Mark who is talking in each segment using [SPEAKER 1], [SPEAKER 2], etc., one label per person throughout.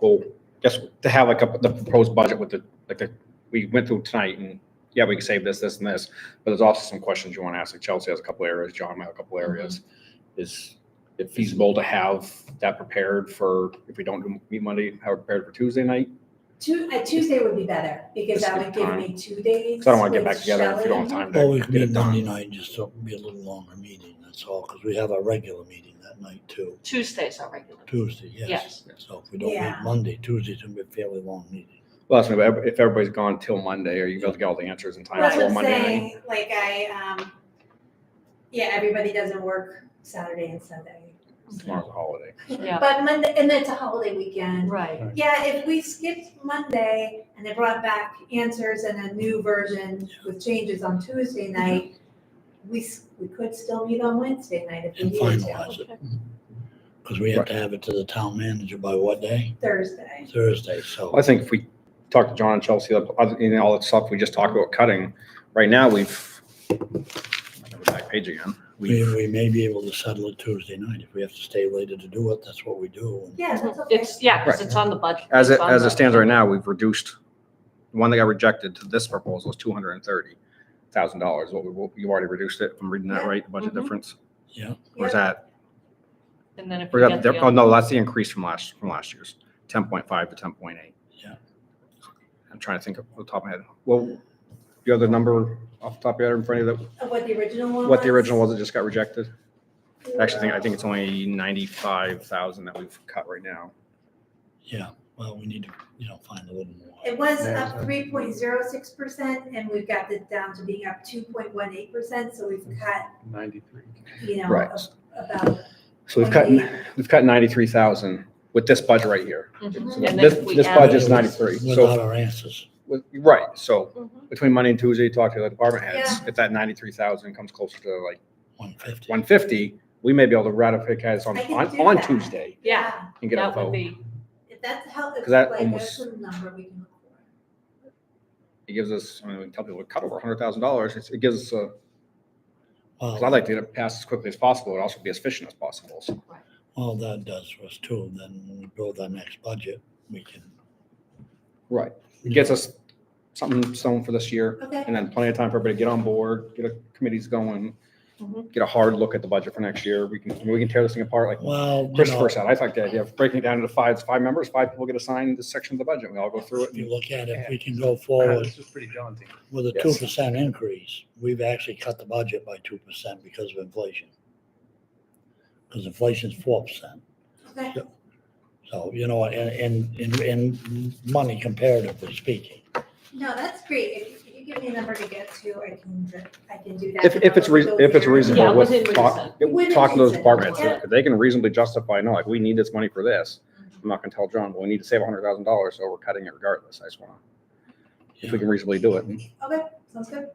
[SPEAKER 1] well, just to have like a, the proposed budget with the, like the, we went through tonight and, yeah, we can save this, this and this, but there's also some questions you want to ask, like Chelsea has a couple areas, John might have a couple
[SPEAKER 2] Mm-hmm.
[SPEAKER 1] areas. Is it feasible to have that prepared for, if we don't do meet Monday, have it prepared for Tuesday night?
[SPEAKER 2] Tu- uh, Tuesday would be better, because
[SPEAKER 1] Just
[SPEAKER 2] that
[SPEAKER 1] give
[SPEAKER 2] would give
[SPEAKER 1] time.
[SPEAKER 2] me two days.
[SPEAKER 1] Because I don't want to get
[SPEAKER 2] with
[SPEAKER 1] back together if we don't have
[SPEAKER 2] Shelley.
[SPEAKER 1] time to
[SPEAKER 3] Always
[SPEAKER 1] get
[SPEAKER 3] meet
[SPEAKER 1] it
[SPEAKER 3] Monday
[SPEAKER 1] done.
[SPEAKER 3] night, just so it'll be a little longer meeting, that's all, because we have our regular meeting that night too,
[SPEAKER 4] Tuesdays are regular.
[SPEAKER 3] Tuesday, yes.
[SPEAKER 1] Yes.
[SPEAKER 3] So if we don't meet
[SPEAKER 2] Yeah.
[SPEAKER 3] Monday, Tuesday's gonna be a fairly long meeting.
[SPEAKER 1] Well, that's maybe if everybody's gone till Monday, are you able to get all the answers in time
[SPEAKER 2] That's
[SPEAKER 1] for
[SPEAKER 2] what I'm
[SPEAKER 1] Monday night?
[SPEAKER 2] saying, like I, um, yeah, everybody doesn't work Saturday and Sunday.
[SPEAKER 1] Tomorrow's a holiday.
[SPEAKER 4] Yeah,
[SPEAKER 2] But Monday, and it's a holiday weekend.
[SPEAKER 4] right.
[SPEAKER 2] Yeah, if we skipped Monday and they brought back answers and a new version with changes on Tuesday
[SPEAKER 4] Mm-hmm.
[SPEAKER 2] night, we, s- we could still meet on Wednesday night if we
[SPEAKER 3] And
[SPEAKER 2] needed
[SPEAKER 3] finalize
[SPEAKER 2] to,
[SPEAKER 3] it, because we have to have it to the town manager by what day?
[SPEAKER 2] Thursday.
[SPEAKER 3] Thursday, so.
[SPEAKER 1] Well, I think if we talk to John and Chelsea, other- you know, all that stuff we just talked about cutting, right now, we've, I go back page again,
[SPEAKER 3] We,
[SPEAKER 1] we've,
[SPEAKER 3] we may be able to settle it Tuesday night. If we have to stay later to do it, that's what we do. And
[SPEAKER 2] Yeah, that's okay.
[SPEAKER 4] It's, yeah, because it's on the budget.
[SPEAKER 1] as it,
[SPEAKER 4] It's on
[SPEAKER 1] as
[SPEAKER 4] the-
[SPEAKER 1] it stands right now, we've reduced, the one that got rejected to this proposal is two hundred and thirty thousand dollars, what we, what- you've already reduced it, if I'm reading that right, the budget
[SPEAKER 4] Mhm.
[SPEAKER 1] difference?
[SPEAKER 3] Yeah.
[SPEAKER 1] Or is that,
[SPEAKER 4] And then if
[SPEAKER 1] or
[SPEAKER 4] we
[SPEAKER 1] that,
[SPEAKER 4] get
[SPEAKER 1] that- oh,
[SPEAKER 4] the,
[SPEAKER 1] no, that's the increase from last, from last year's, ten point five to ten point eight.
[SPEAKER 3] Yeah.
[SPEAKER 1] I'm trying to think off the top of my head, well, you have the number off the top of your head in front of you, that-
[SPEAKER 2] Of what the original one was.
[SPEAKER 1] what the original was that just got rejected? Actually, I think, I think it's only ninety-five thousand that we've cut right now.
[SPEAKER 3] Yeah, well, we need to, you know, find a little more.
[SPEAKER 2] It was
[SPEAKER 3] Yeah.
[SPEAKER 2] up three point zero six percent, and we've got it down to being up two point one eight percent, so we've cut,
[SPEAKER 5] Ninety-three.
[SPEAKER 2] you know,
[SPEAKER 1] Right.
[SPEAKER 2] a- about.
[SPEAKER 1] So we've cut,
[SPEAKER 2] 28.
[SPEAKER 1] we've cut ninety-three thousand with this budget right here.
[SPEAKER 4] Mhm.
[SPEAKER 1] Mm-hmm. This-
[SPEAKER 4] And then if we
[SPEAKER 1] This
[SPEAKER 4] add-
[SPEAKER 1] budget's ninety-three,
[SPEAKER 3] Without
[SPEAKER 1] so,
[SPEAKER 3] our answers.
[SPEAKER 1] with- right, so
[SPEAKER 4] Mhm.
[SPEAKER 1] between Monday and Tuesday, talk to the department heads, if that ninety-three thousand comes closer to like
[SPEAKER 3] One fifty.
[SPEAKER 1] one fifty, we may be able to ratify guys on,
[SPEAKER 2] I can
[SPEAKER 1] on,
[SPEAKER 2] do
[SPEAKER 1] on
[SPEAKER 2] that.
[SPEAKER 1] Tuesday
[SPEAKER 4] Yeah,
[SPEAKER 1] and get a
[SPEAKER 4] that would
[SPEAKER 1] vote.
[SPEAKER 4] be,
[SPEAKER 2] If that's how, if
[SPEAKER 1] 'Cause that
[SPEAKER 2] like,
[SPEAKER 1] almost-
[SPEAKER 2] that's a number we can look for.
[SPEAKER 1] It gives us, I mean, we can tell people we cut over hundred thousand dollars, it gives us a, because I'd
[SPEAKER 3] Well,
[SPEAKER 1] like to get it passed as quickly as possible, and also be as efficient as possible, so.
[SPEAKER 3] all that does for us too, then when we build our next budget, we can.
[SPEAKER 1] Right. It gets us something sewn for this year.
[SPEAKER 2] Okay,
[SPEAKER 1] And then plenty of time for everybody to get on board, get a committees going,
[SPEAKER 2] Mm-hmm.
[SPEAKER 4] Mhm.
[SPEAKER 1] get a hard look at the budget for next year. We can, we can tear this thing apart like
[SPEAKER 3] Well, you know,
[SPEAKER 1] Christopher said. I like the idea of breaking it down into five, five members, five people get assigned this section of the budget. We all go through it.
[SPEAKER 3] if you
[SPEAKER 1] and-
[SPEAKER 3] look at it, we can go forward
[SPEAKER 5] This is pretty daunting.
[SPEAKER 3] with a two
[SPEAKER 1] Yes.
[SPEAKER 3] percent increase. We've actually cut the budget by two percent because of inflation. Because inflation's four percent.
[SPEAKER 2] okay,
[SPEAKER 3] So, you know, in, in, in, in money comparatively speaking.
[SPEAKER 2] no, that's great, if if you give me a number to get to, I can, I can do that.
[SPEAKER 1] If,
[SPEAKER 2] and
[SPEAKER 1] if it's,
[SPEAKER 2] I'll
[SPEAKER 1] rea-
[SPEAKER 2] go
[SPEAKER 1] if it's
[SPEAKER 2] through.
[SPEAKER 4] Yeah,
[SPEAKER 1] reasonable with,
[SPEAKER 4] within
[SPEAKER 1] talk,
[SPEAKER 2] reason.
[SPEAKER 1] talk to those
[SPEAKER 2] Within
[SPEAKER 1] departments,
[SPEAKER 2] reason.
[SPEAKER 1] if if they can reasonably justify, no, like, we need this money for this. I'm not gonna tell John, well, we need to save a hundred thousand dollars, so we're cutting it regardless. I just wanna, if we can reasonably do it.
[SPEAKER 2] Okay, sounds good.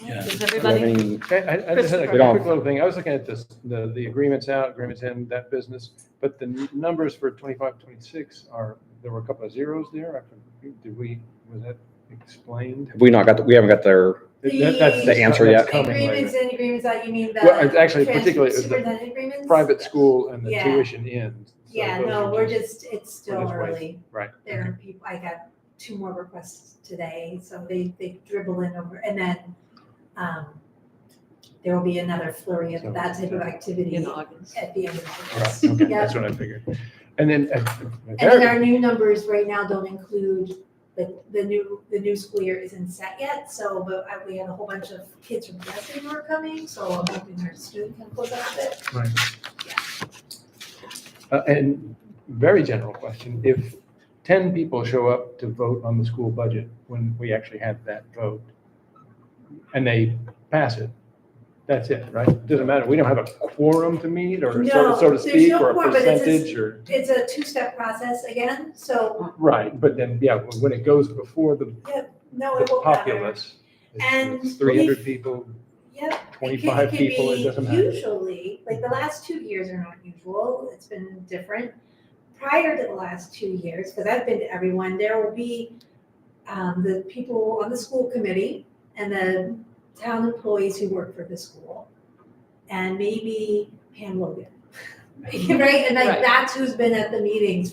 [SPEAKER 3] Yeah.
[SPEAKER 4] does
[SPEAKER 1] Do you have
[SPEAKER 4] everybody,
[SPEAKER 1] any-
[SPEAKER 5] I, I, I just had a
[SPEAKER 1] Christopher.
[SPEAKER 5] quick little thing. I was looking at this, the, the agreements out, agreements in, that business. But the n- numbers for 25, 26 are, there were a couple of zeros there. I forget- Did we, was that explained?
[SPEAKER 1] Have we not got, the- we haven't got their
[SPEAKER 5] That- that's-
[SPEAKER 2] The
[SPEAKER 1] answer
[SPEAKER 5] that's
[SPEAKER 1] yet?
[SPEAKER 5] coming later.
[SPEAKER 2] Agreements and agreements out, you mean the.
[SPEAKER 5] Well, it's actually
[SPEAKER 2] trans-
[SPEAKER 5] particularly- it was the
[SPEAKER 2] Superintendent agreements?
[SPEAKER 5] Private school and the
[SPEAKER 2] Yeah.
[SPEAKER 5] tuition in. So
[SPEAKER 2] Yeah,
[SPEAKER 5] those
[SPEAKER 2] no,
[SPEAKER 5] are
[SPEAKER 2] we're just, it's
[SPEAKER 5] we're
[SPEAKER 2] still
[SPEAKER 5] just waiting.
[SPEAKER 2] early.
[SPEAKER 5] Right.
[SPEAKER 2] There are people, I got two more requests today, so they, they dribble in over, and then, um, there will be another flurry of that type of activity
[SPEAKER 4] in August?
[SPEAKER 2] at the end of
[SPEAKER 5] Right,
[SPEAKER 2] August.
[SPEAKER 5] okay,
[SPEAKER 2] Yeah.
[SPEAKER 5] that's what I figured. And then. uh,
[SPEAKER 2] And then our new numbers right now don't include, the, the new, the new school year isn't set yet, so, but I, we had a whole bunch of kids from Dresden who are coming, so I'm hoping our student can close out a bit.
[SPEAKER 5] Uh, And very general question, if 10 people show up to vote on the school budget when we actually have that vote, and they pass it, that's it, right? Doesn't matter, we don't have a quorum to meet, or so
[SPEAKER 2] No,
[SPEAKER 5] so to
[SPEAKER 2] there's
[SPEAKER 5] speak,
[SPEAKER 2] no
[SPEAKER 5] or a
[SPEAKER 2] quorum, but it's
[SPEAKER 5] percentage, or,
[SPEAKER 2] It's a two-step process again, so,
[SPEAKER 5] right, but then, yeah, when it goes before the
[SPEAKER 2] no,
[SPEAKER 5] the
[SPEAKER 2] it won't matter.
[SPEAKER 5] populace,
[SPEAKER 2] And
[SPEAKER 5] it's 300 people,
[SPEAKER 2] Yep, It can-
[SPEAKER 5] 25 people, it
[SPEAKER 2] be
[SPEAKER 5] doesn't matter.
[SPEAKER 2] Usually, like the last two years are not usual, it's been different. Prior to the last two years, because I've been to everyone, there will be um, the people on the school committee and the town employees who work for the school. And maybe Pam Logan, right? And like
[SPEAKER 4] Right.
[SPEAKER 2] that's who's been at the meetings